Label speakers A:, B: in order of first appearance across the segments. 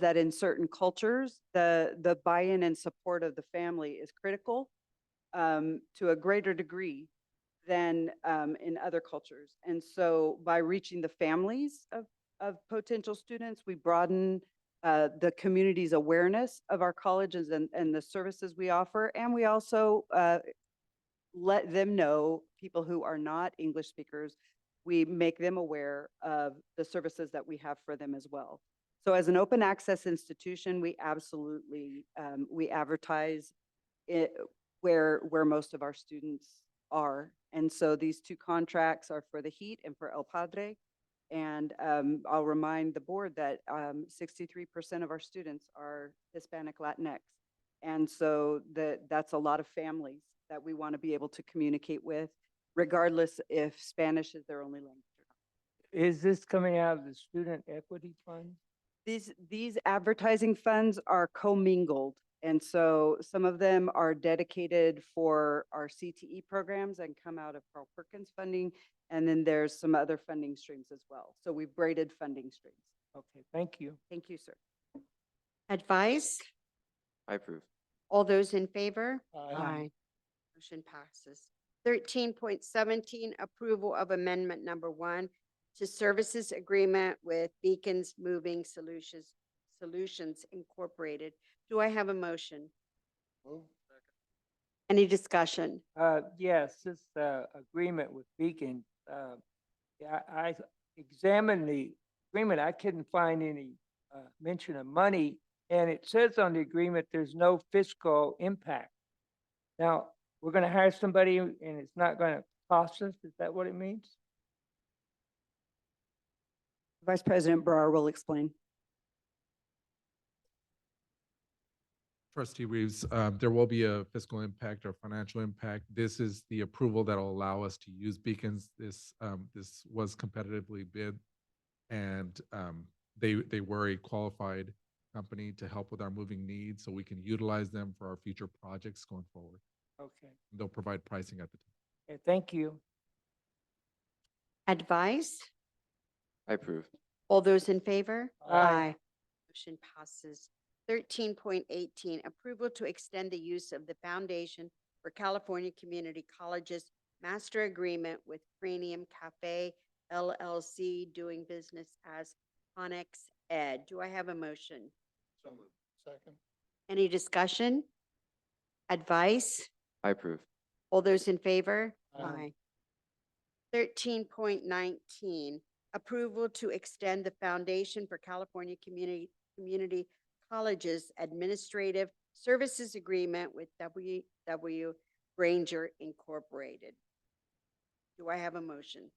A: that in certain cultures, the, the buy-in and support of the family is critical um, to a greater degree than um, in other cultures. And so by reaching the families of, of potential students, we broaden uh, the community's awareness of our colleges and, and the services we offer. And we also uh, let them know, people who are not English speakers, we make them aware of the services that we have for them as well. So as an open access institution, we absolutely, um, we advertise it where, where most of our students are. And so these two contracts are for the heat and for El Padre. And, um, I'll remind the board that, um, sixty-three percent of our students are Hispanic Latinx. And so that, that's a lot of families that we want to be able to communicate with, regardless if Spanish is their only language. or not.
B: Is this coming out of the student equity fund?
A: These, these advertising funds are commingled. And so some of them are dedicated for our CTE programs and come out of Carl Perkins funding. And then there's some other funding streams as well. So we've braided funding streams.
B: Okay, thank you.
A: Thank you, sir.
C: Advice?
D: I approve.
C: All those in favor?
B: Aye.
C: Motion passes. Thirteen point seventeen, approval of amendment number one to services agreement with Beacons Moving Solutions, Solutions Incorporated. Do I have a motion? Any discussion?
B: Uh, yes, this, uh, agreement with Beacon, uh, yeah, I I examined the agreement. I couldn't find any, uh, mention of money. And it says on the agreement, there's no fiscal impact. Now, we're gonna hire somebody and it's not gonna cost us. Is that what it means?
A: Vice President Brower will explain.
E: Trustee Reeves, uh, there will be a fiscal impact or financial impact. This is the approval that'll allow us to use beacons. This, um, this was competitively bid. And, um, they, they were a qualified company to help with our moving needs, so we can utilize them for our future projects going forward.
B: Okay,
E: They'll provide pricing at the time.
B: Okay, thank you.
C: Advice?
D: I approve.
C: All those in favor?
B: Aye.
C: Motion passes. Thirteen point eighteen, approval to extend the use of the Foundation for California Community Colleges Master Agreement with Cranium Cafe LLC doing business as Conex Ed. Do I have a motion?
B: Second.
C: Any discussion? Advice?
D: I approve.
C: All those in favor?
B: Aye.
C: Um, Thirteen point nineteen, approval to extend the Foundation for California Community, Community Colleges Administrative Services Agreement with W W Granger Incorporated. Do I have a motion?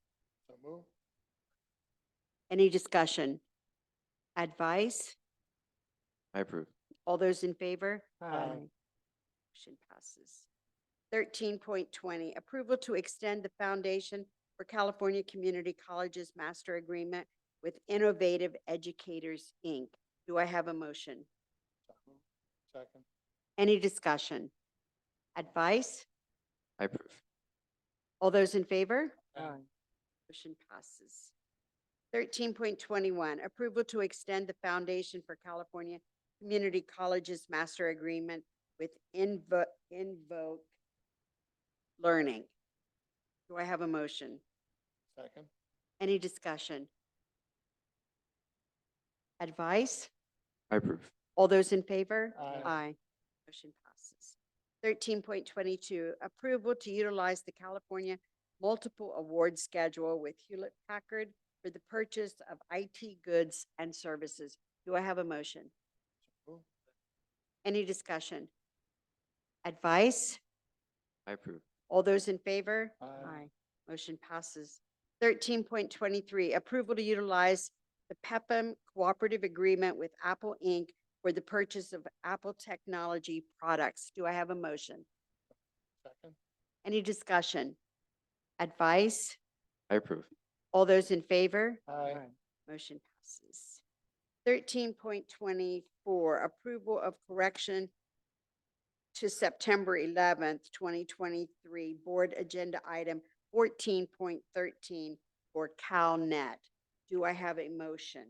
C: Any discussion? Advice?
D: I approve.
C: All those in favor?
B: Aye.
C: Motion passes. Thirteen point twenty, approval to extend the Foundation for California Community Colleges Master Agreement with Innovative Educators, Inc. Do I have a motion?
B: Second.
C: Any discussion? Advice?
D: I approve.
C: All those in favor?
B: Aye.
C: Motion passes. Thirteen point twenty-one, approval to extend the Foundation for California Community Colleges Master Agreement with Invo- Invoke Learning. Do I have a motion?
B: Second.
C: Any discussion? Advice?
D: I approve.
C: All those in favor?
B: Aye.
C: Aye. Motion passes. Thirteen point twenty-two, approval to utilize the California Multiple Award Schedule with Hewlett Packard for the purchase of IT goods and services. Do I have a motion? Any discussion? Advice?
D: I approve.
C: All those in favor?
B: Aye.
C: Motion passes. Thirteen point twenty-three, approval to utilize the Pepin Cooperative Agreement with Apple Inc. for the purchase of Apple technology products. Do I have a motion?
B: Second.
C: Any discussion? Advice?
D: I approve.
C: All those in favor?
B: Aye.
C: Motion passes. Thirteen point twenty-four, approval of correction to September eleventh, twenty twenty-three, board agenda item fourteen point thirteen for CalNet. Do I have a motion?